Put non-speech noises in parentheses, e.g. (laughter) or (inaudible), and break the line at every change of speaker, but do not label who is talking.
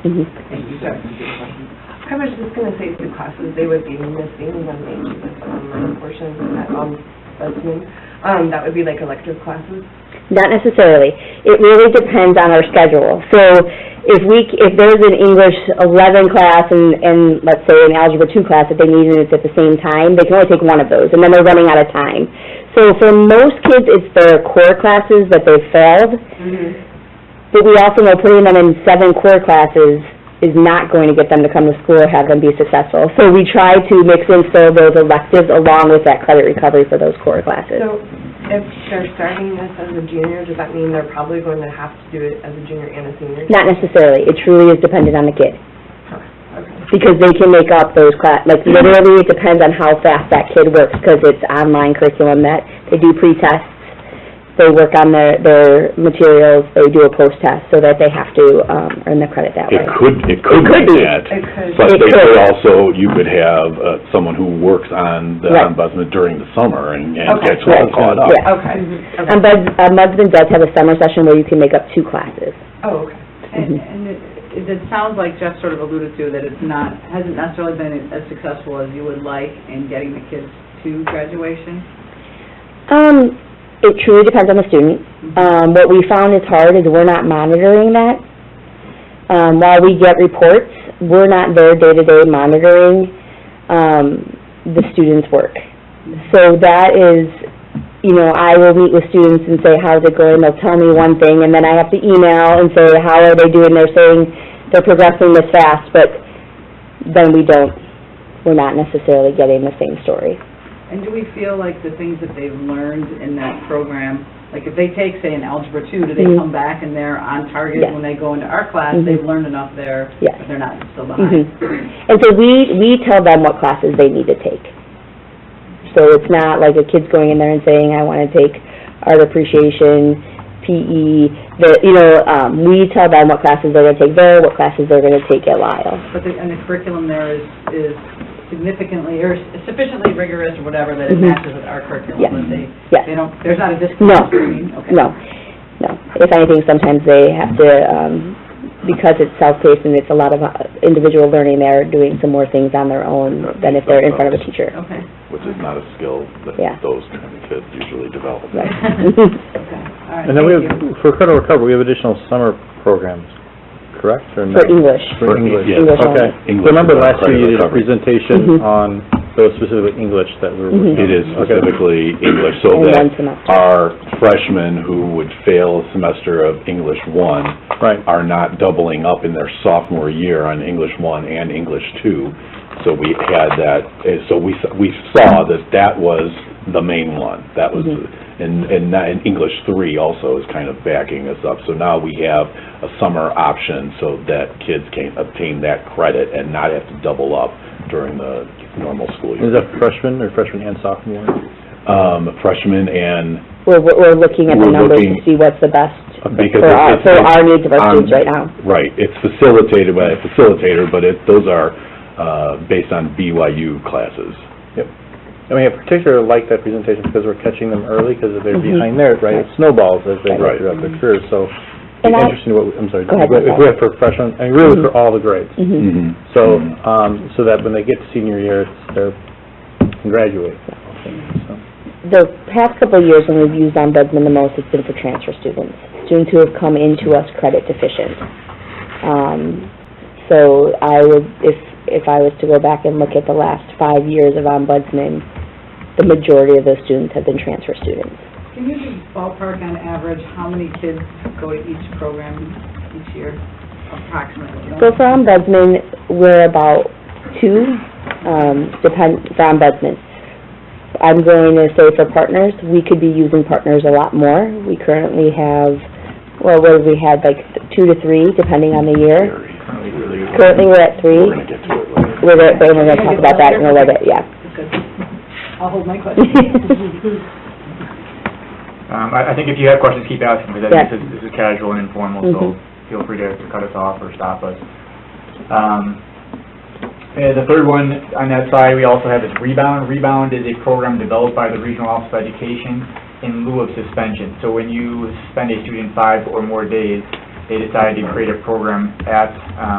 Mm-hmm.
Hey, you got some good questions.
I was just gonna say two classes they would be missing when they do this online portion at, um, that's Zoom. Um, that would be like elective classes.
Not necessarily. It really depends on our schedule. So if we, c- if there's an English 11 class and, and let's say an Algebra 2 class that they need and it's at the same time, they can only take one of those, and then they're running out of time. So for most kids, it's their core classes that they failed, but we also know putting them in seven core classes is not going to get them to come to school or have them be successful. So we try to mix in so those electives along with that credit recovery for those core classes.
So if they're starting this as a junior, does that mean they're probably going to have to do it as a junior and a senior?
Not necessarily. It truly is dependent on the kid.
Okay.
because they can make up those class, like literally it depends on how fast that kid works, because it's online curriculum that they do pre-tests, they work on their, their materials, they do a post-test, so that they have to, um, earn the credit that way.
It could, it could
could
be
be.
that,
It could.
but
It
they
could.
could also, you could have uh, someone who works on the
Right.
ombudsman during the summer and and
Okay.
gets all
Right.
caught up.
Yeah.
Okay. Okay.
And Bud, Mudsman does have a summer session where you can make up two classes.
Oh, okay.
Mhm.
And and it, it sounds like Jeff sort of alluded to, that it's not, hasn't necessarily been as successful as you would like in getting the kids to graduation.
Um, it truly depends on the student. Um, what we found is hard is we're not monitoring that. Um, while we get reports, we're not there day-to-day monitoring, um, the students' work. So that is, you know, I will meet with students and say, how's it going? They'll tell me one thing, and then I have to email and say, how are they doing? They're saying they're progressing this fast, but then we don't, we're not necessarily getting the same story.
And do we feel like the things that they've learned in that program, like if they take, say, an Algebra 2, do they
Mhm.
come back and they're on target
Yes.
when they go into our class?
Mhm.
They've learned enough there,
Yes.
but they're not still
Mhm.
behind?
And so we, we tell them what classes they need to take. So it's not like a kid's going in there and saying, I want to take art appreciation, PE, the, you know, um, we tell them what classes they're going to take there, what classes they're going to take at Lyle.
(clears throat) But the, and the curriculum there is, is significantly, or sufficiently rigorous or whatever, that it
Mhm.
matches with our curriculum,
Yes.
that they,
Yes.
they don't, there's not a
No.
disconnect between, okay.
No, no. If anything, sometimes they have to, um, because it's self-paced and it's a lot of uh, individual learning, they're doing some more things on their own than if they're in front of a teacher.
Okay.
Which is not a skill that
Yeah.
those kind of kids usually develop.
Right. (laughs)
Okay, all right,
And then we have,
thank you.
for credit recovery, we have additional summer programs, correct, or no?
For English.
For English.
Yeah.
English only.
Okay.
English
Remember
is on
last year you did
credit
a
Mhm.
recovery.
presentation on those specific English that we were
Mm-hmm.
working
It
on?
is
Okay.
specifically English, so
And
that
one semester.
our freshmen who would fail a semester of English one
Right.
are not doubling up in their sophomore year on English one and English two. So we had that, eh, so we, s- we saw that that was the main one. That was, and, and not- and English three also is kind of backing us up. So now we have a summer option so that kids can obtain that credit and not have to double up during the normal school year.
Is that freshman or freshman and sophomore?
Um, freshmen and
We're, we're we're looking at the
We're
numbers to
looking-
see what's the best
because
for our, uh,
it's-
for
it's-
our needs of our
um,
students right now.
Right, it's facilitated by a facilitator, but it, those are, uh, based on BYU classes.
I mean, I particularly like that presentation because we're catching them early, because if they're
Mhm.
behind there, right, it snowballs as they go
Right.
throughout their career, so
And
it'd be
I-
interesting what, we- I'm sorry,
Go ahead, Mm-hmm. go
if we
ahead.
have for freshmen, and really for all the grades.
Mm.
Mhm.
So, um, so that when they get to senior year, it's- they're, can graduate. So,
The past couple of years when we've used Ombudsman the most, it's been for transfer students, students who have come into us credit deficient. Um, so I would, if, if I was to go back and look at the last five years of Ombudsman, the majority of those students have been transfer students.
Can you just ballpark on average, how many kids go to each program each year approximately?
So for ombudsman, we're about two, um, depend, for ombudsman. I'm going to say for partners, we could be using partners a lot more. We currently have, well, what have we had, like two to three, depending on the year. Mm-hmm. Currently, we're at
We're
three.
gonna get to it later.
We're, at- we're gonna talk about that in a little bit, yeah.
I'll hold my question.
Um, I, I think if you have questions, keep asking, because I
Yeah.
think this is, this is casual and informal, so
Mhm.
feel free to to cut us off or stop us. Um, and the third one on that side, we also have is Rebound. Rebound is a program developed by the Regional Office of Education in lieu of suspension. So when you suspend a student five or more days, they decide to create a program at, um,